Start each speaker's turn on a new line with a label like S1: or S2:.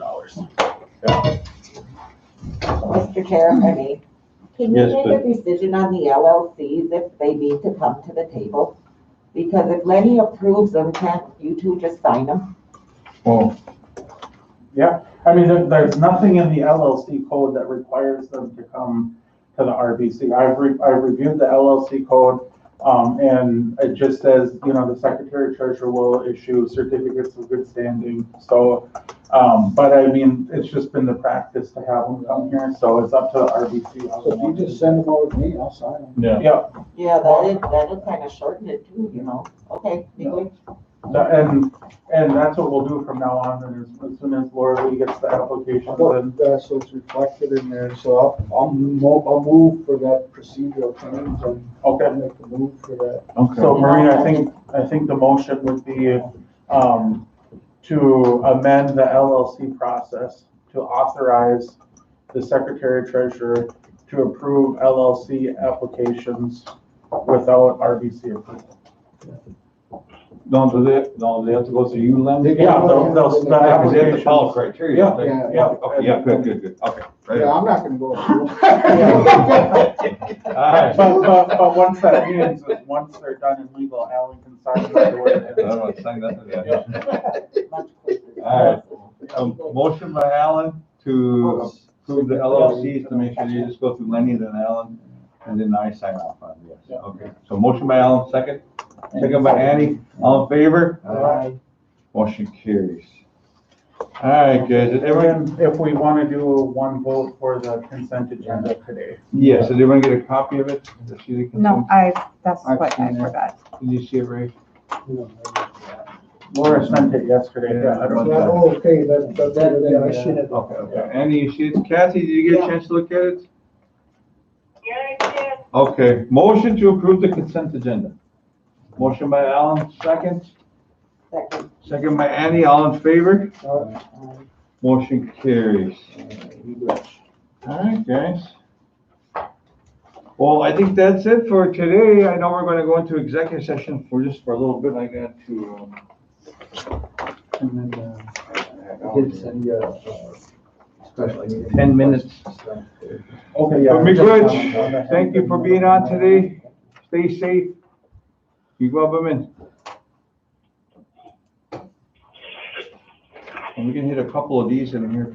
S1: Mr. Chair, I mean, can you
S2: Yes,
S1: make a decision on the LLCs if they need to come to the table? Because if Lenny approves them, can't you two just sign them?
S2: Oh,
S3: I mean, there, there's nothing in the LLC code that requires them to come to the RBC. I've re, I've reviewed the LLC code. Um, and it just says, you know, the secretary treasurer will issue certificates of good standing. So, um, but I mean, it's just been the practice to have them come here, so it's up to the RBC. how
S4: So
S3: they
S4: if you
S3: want to do
S4: just
S3: it.
S4: send them over to me, I'll sign them.
S2: yeah.
S1: Yeah, that is, that would kind of shorten it too, you know? Okay, be good.
S3: So- And, and that's what we'll do from now on, and as, as soon as Laura Lee gets the application, then,
S4: Uh, so it's reflected in there, so I'll, I'll move, I'll move for that procedural change and
S3: okay.
S4: I'll make a move for that.
S2: Okay.
S3: So Maureen, I think, I think the motion would be, um, to amend the LLC process to authorize the secretary treasurer to approve LLC applications without RBC approval.
S2: No, do they, no, they have to go through you, Len?
S3: Yeah, those, those, the
S4: Yeah,
S2: Because they have to follow
S3: applications.
S2: criteria.
S3: Yeah,
S2: They-
S4: yeah.
S2: Yeah, okay, yeah, good, good, good, okay. right.
S4: Yeah, I'm not gonna go.
S2: All
S3: But,
S2: right.
S3: but, but once that means, once they're done in legal, Alan can sign right
S2: I don't
S3: away.
S2: want to say nothing yet.
S1: Much quicker.
S2: All Um, Motion by Alan to approve the LLCs to make sure you just go through Lenny, then Alan, and then I sign off on this.
S3: Yeah.
S2: Okay, so motion by Alan, second, second by Annie, all in favor? Motion carries. All right, guys, did everyone,
S3: And if we want to do one vote for the consent agenda today.
S2: yes, did everyone get a copy of it? Did you see the
S5: No, I, that's
S4: I've
S5: what I
S4: seen it.
S5: forgot.
S2: consent? Did you see it, Ray?
S3: Laura sent it yesterday, yeah, I don't
S2: Yeah.
S4: oh, Okay, that, that's, yeah, I should have.
S2: Okay, okay, Annie, you see it? Kathy, did you get a chance to look at it?
S6: Yeah, I did.
S2: Okay, motion to approve the consent agenda. Motion by Alan, second,
S1: Second.
S2: second by Annie, all in favor? Motion carries. All right, guys. Well, I think that's it for today. I know we're gonna go into executive session for just for a little bit. I got to, um.
S4: And then, uh, I did send you a, uh, special. meeting.
S2: 10 minutes.
S3: Okay,
S2: But McRitch, thank you for being on today. Stay safe. You go up a minute. And we can hit a couple of these in here